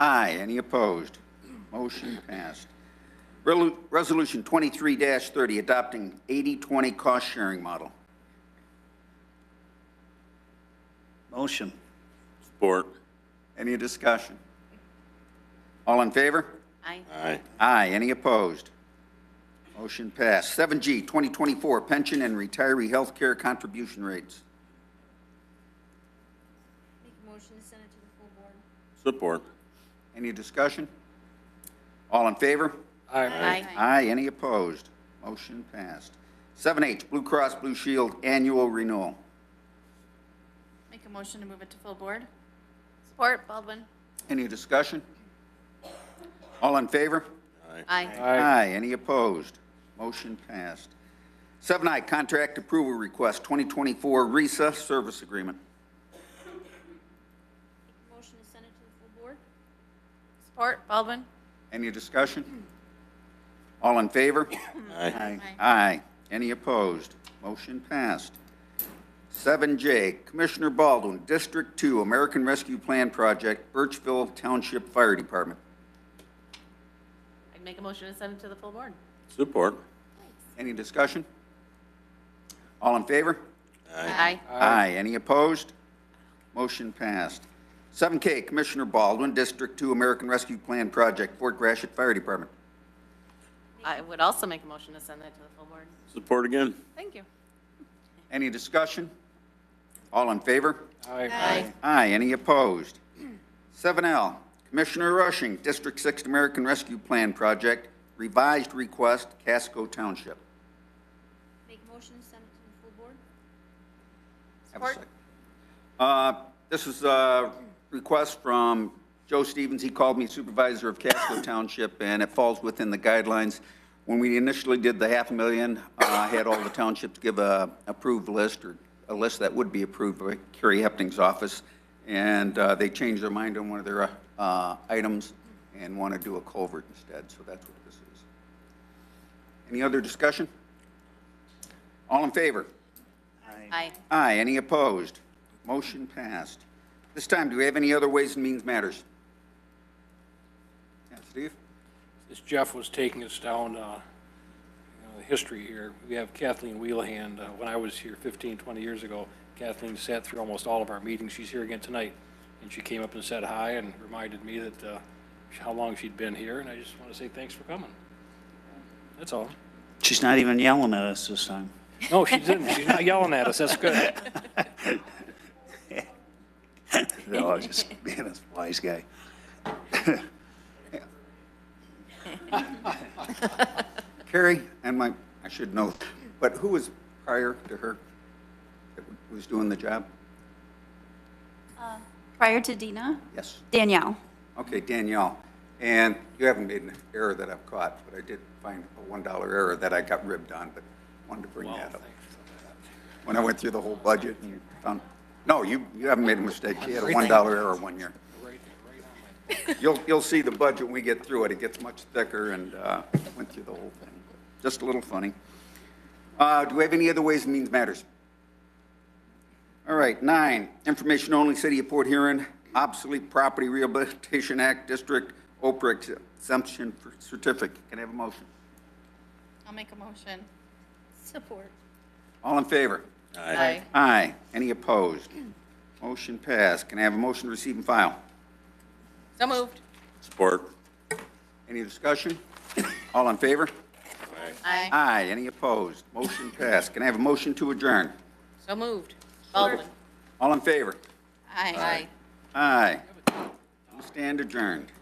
Aye. Any opposed? Motion passed. Relu- Resolution 23-30, adopting 80-20 cost-sharing model. Motion. Support. Any discussion? All in favor? Aye. Aye. Aye. Any opposed? Motion passed. 7G, 2024 pension and retiree healthcare contribution rates. Make a motion to send it to the full board. Support. Any discussion? All in favor? Aye. Aye. Any opposed? Motion passed. 7H, Blue Cross Blue Shield annual renewal. Make a motion to move it to full board. Support, Baldwin. Any discussion? All in favor? Aye. Aye. Any opposed? Motion passed. 7I, Contract Approval Request 2024 RESA Service Agreement. Motion to send it to the full board. Support, Baldwin. Any discussion? All in favor? Aye. Aye. Any opposed? Motion passed. 7J, Commissioner Baldwin, District 2, American Rescue Plan Project, Birchville Township Fire Department. I'd make a motion to send it to the full board. Support. Any discussion? All in favor? Aye. Aye. Any opposed? Motion passed. 7K, Commissioner Baldwin, District 2, American Rescue Plan Project, Fort Gratiot Fire Department. I would also make a motion to send that to the full board. Support again. Thank you. Any discussion? All in favor? Aye. Aye. Any opposed? 7L, Commissioner Rushing, District 6 American Rescue Plan Project, revised request, Casco Township. Make a motion to send it to the full board. Have a Support. sec. Uh, This is a request from Joe Stevens. He called me supervisor of Casco Township, and it falls within the guidelines. When we initially did the half a million, uh, I had all the townships give a approved list, or a list that would be approved by Kerry Hepting's office, and uh, they changed their mind on one of their uh, items and want to do a culvert instead, so that's what this is. Any other discussion? All in favor? Aye. Aye, any opposed? Motion passed. This time, do we have any other Ways and Means Matters? Yeah, Steve? As Jeff was taking us down, uh, you know, the history here, we have Kathleen Wheelhand. Uh, When I was here 15, 20 years ago, Kathleen sat through almost all of our meetings. She's here again tonight. And she came up and said hi and reminded me that, uh, how long she'd been here, and I just want to say thanks for coming. That's all. She's not even yelling at us this time. No, she didn't. She's not yelling at us. That's good. No, I was just being a wise guy. Carrie, and my, I should know, but who was prior to her that was doing the job? Prior to Dina, Yes, Danielle. okay, Danielle. And you haven't made an error that I've caught, but I did find a $1 error that I got ribbed on, but wanted to bring that up. When I went through the whole budget and you found, no, you, you haven't made a mistake. You had a $1 error one year. You'll, you'll see the budget when we get through it. It gets much thicker and uh, went through the whole thing. Just a little funny. Uh, Do we have any other Ways and Means Matters? All right, nine, information only, City of Port Huron, obsolete property rehabilitation act, District Oprah exemption for certificate. Can I have a motion? I'll make a motion. Support. All in favor? Aye. Aye. Any opposed? Motion passed. Can I have a motion to receive and file? So moved. Support. Any discussion? All in favor? Aye. Aye. Any opposed? Motion passed. Can I have a motion to adjourn? So moved. Baldwin. All in favor? Aye. Aye. We stand adjourned.